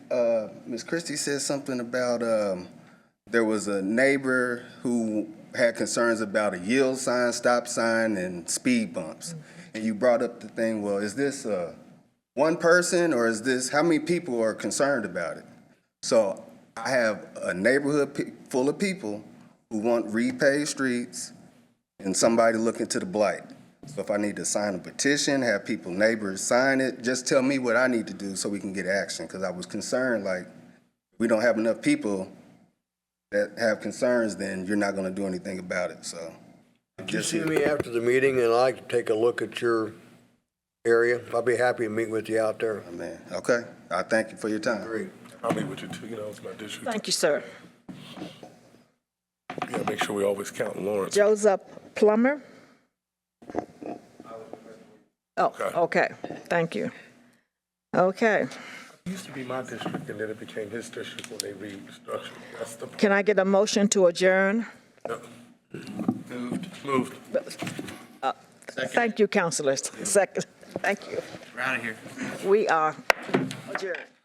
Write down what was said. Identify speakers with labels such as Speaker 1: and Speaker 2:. Speaker 1: Uh, Miss Christie said something about um, there was a neighbor who had concerns about a yield sign, stop sign, and speed bumps. And you brought up the thing, well, is this uh, one person or is this, how many people are concerned about it? So I have a neighborhood pe- full of people who want repaved streets and somebody looking to the blight. So if I need to sign a petition, have people, neighbors sign it, just tell me what I need to do so we can get action. Because I was concerned, like, we don't have enough people that have concerns, then you're not going to do anything about it, so.
Speaker 2: You see me after the meeting and I'd like to take a look at your area. I'd be happy to meet with you out there.
Speaker 1: I mean, okay, I thank you for your time.
Speaker 2: Great.
Speaker 3: I'll meet with you too, you know, it's my district.
Speaker 4: Thank you, sir.
Speaker 3: Yeah, make sure we always count Lawrence.
Speaker 4: Joseph Plummer? Oh,
Speaker 3: Okay.
Speaker 4: okay, thank you. Okay,
Speaker 3: Used to be my district and then it became his district when they restructured. That's the.
Speaker 4: can I get a motion to adjourn?
Speaker 3: Moved. Moved.
Speaker 4: Thank you, counselors. Second, thank you. We're out of here. We are adjourned.